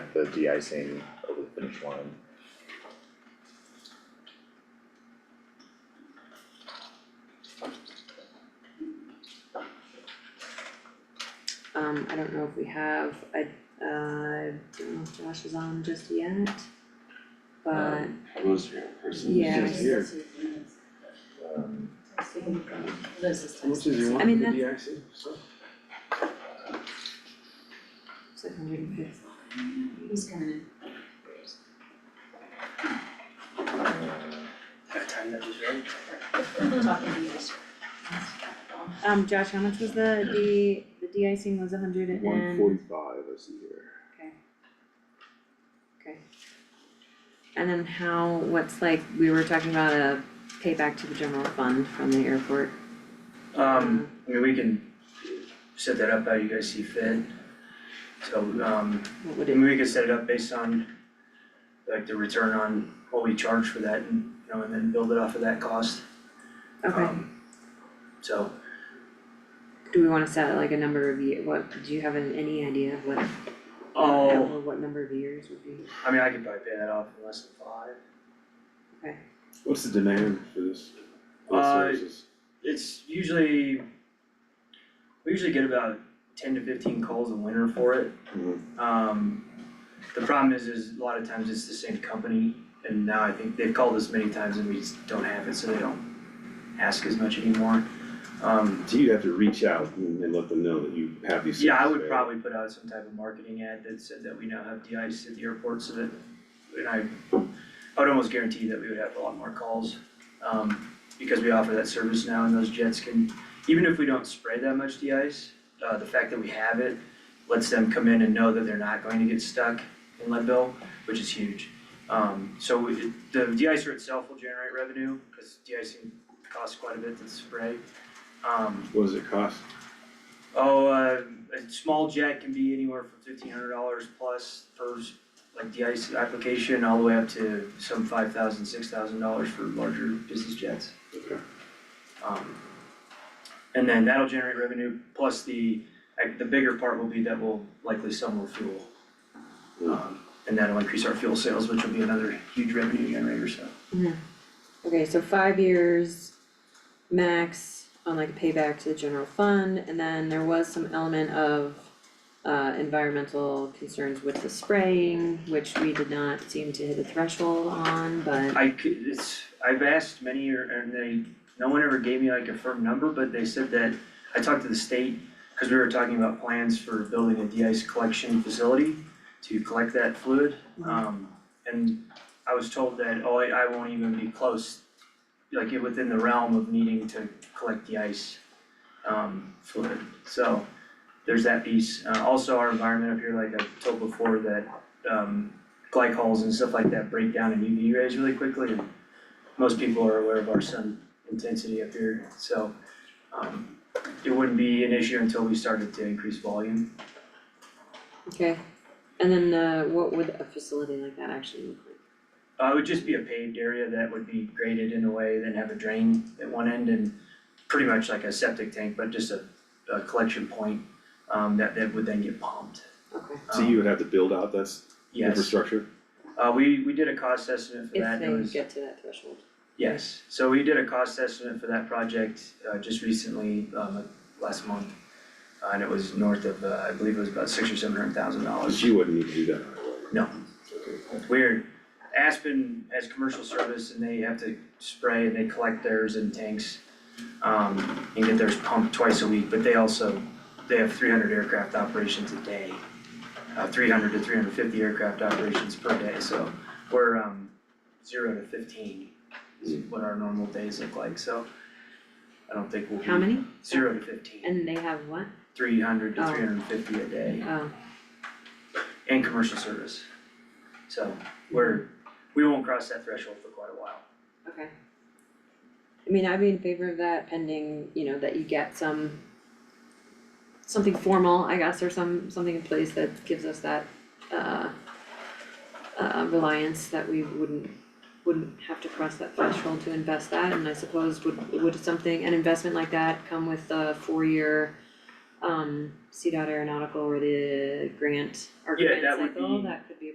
the de-icing over the finish line. Um, I don't know if we have, I, uh, don't know if Josh is on just yet. But, Um, I was here in person. yeah, just here. Um, What's his, you want I mean, the DIC stuff? six hundred and fifty. He's coming in. Talking to you. Um, Josh, how much was the, the, the de-icing was a hundred and? One forty-five, I see here. Okay. Okay. And then how, what's like, we were talking about a payback to the general fund from the airport. Um, I mean, we can set that up how you guys see fit. So, um, What would I it, mean, we could set it up based on like the return on what we charge for that and, you know, and then build it off of that cost. okay, Um, So, do we wanna set like a number of year, what, do you have an- any idea of what, oh, or what number of years would be? I mean, I could probably pay that off in less than five. What's the demand for this, for the Uh, services? It's usually, we usually get about ten to fifteen calls a winter for it. Mhm. Um, the problem is, is a lot of times it's the same company, and now I think they've called us many times and we just don't have it, so they don't ask as much anymore. Um, So you'd have to reach out and and let them know that you have these services yeah, I would available. probably put out some type of marketing ad that said that we now have de-ice at the airport, so that, and I, I would almost guarantee that we would have a lot more calls. Um, because we offer that service now and those jets can, even if we don't spray that much de-ice, uh, the fact that we have it lets them come in and know that they're not going to get stuck in Leadville, which is huge. Um, so we, the deicer itself will generate revenue, cause de-icing costs quite a bit to spray. Um, What does it cost? Oh, uh, a small jet can be anywhere from fifteen hundred dollars plus per, s- like the ice application, all the way up to some five thousand, six thousand dollars for larger business jets. Okay. Um, and then that'll generate revenue, plus the, like, the bigger part will be that we'll likely sell more fuel. Um, and that'll increase our fuel sales, which will be another huge revenue generator, so. Okay, so five years max on like a payback to the general fund, and then there was some element of uh environmental concerns with the spraying, which we did not seem to hit a threshold on, but I could, it's, I've asked many, or, and they, no one ever gave me like a firm number, but they said that, I talked to the state, cause we were talking about plans for building a de-ice collection facility to collect that fluid, um, and I was told that, oh, I, I won't even be close, like, it- within the realm of needing to collect the ice, um, fluid, so there's that piece. Uh, also our environment up here, like I've told before, that, um, glycols and stuff like that break down in UV rays really quickly. and Most people are aware of our sun intensity up here, so um it wouldn't be an issue until we started to increase volume. okay. And then uh what would a facility like that actually look like? Uh it would just be a paved area that would be graded in a way, then have a drain at one end and pretty much like a septic tank, but just a a collection point um that that would then get pumped. Okay, So you would have to build out that s- Um, Yes, infrastructure? uh we we did a cost estimate for if that, it they was get to that threshold. Yes, so we did a cost estimate for that project uh just recently, um like last month. uh, And it was north of, uh, I believe it was about six or seven hundred thousand But dollars. you wouldn't need to do that right away. No. Okay. We're, Aspen has commercial service and they have to spray and they collect theirs in tanks. Um and get theirs pumped twice a week, but they also, they have three hundred aircraft operations a day. Uh three hundred to three hundred fifty aircraft operations per day, so we're um zero to fifteen is what our normal days look like, so. I don't think we'll be. How many? Zero to fifteen, And they have what? three hundred to Oh. three hundred and fifty a day, Oh, and commercial service. So we're, we won't cross that threshold for quite a while. okay. I mean, I'd be in favor of that pending, you know, that you get some something formal, I guess, or some, something in place that gives us that uh uh reliance that we wouldn't wouldn't have to cross that threshold to invest that, and I suppose would would something, an investment like that come with a four-year um CDOT aeronautical or the grant or Yeah, grant that would cycle, be- that could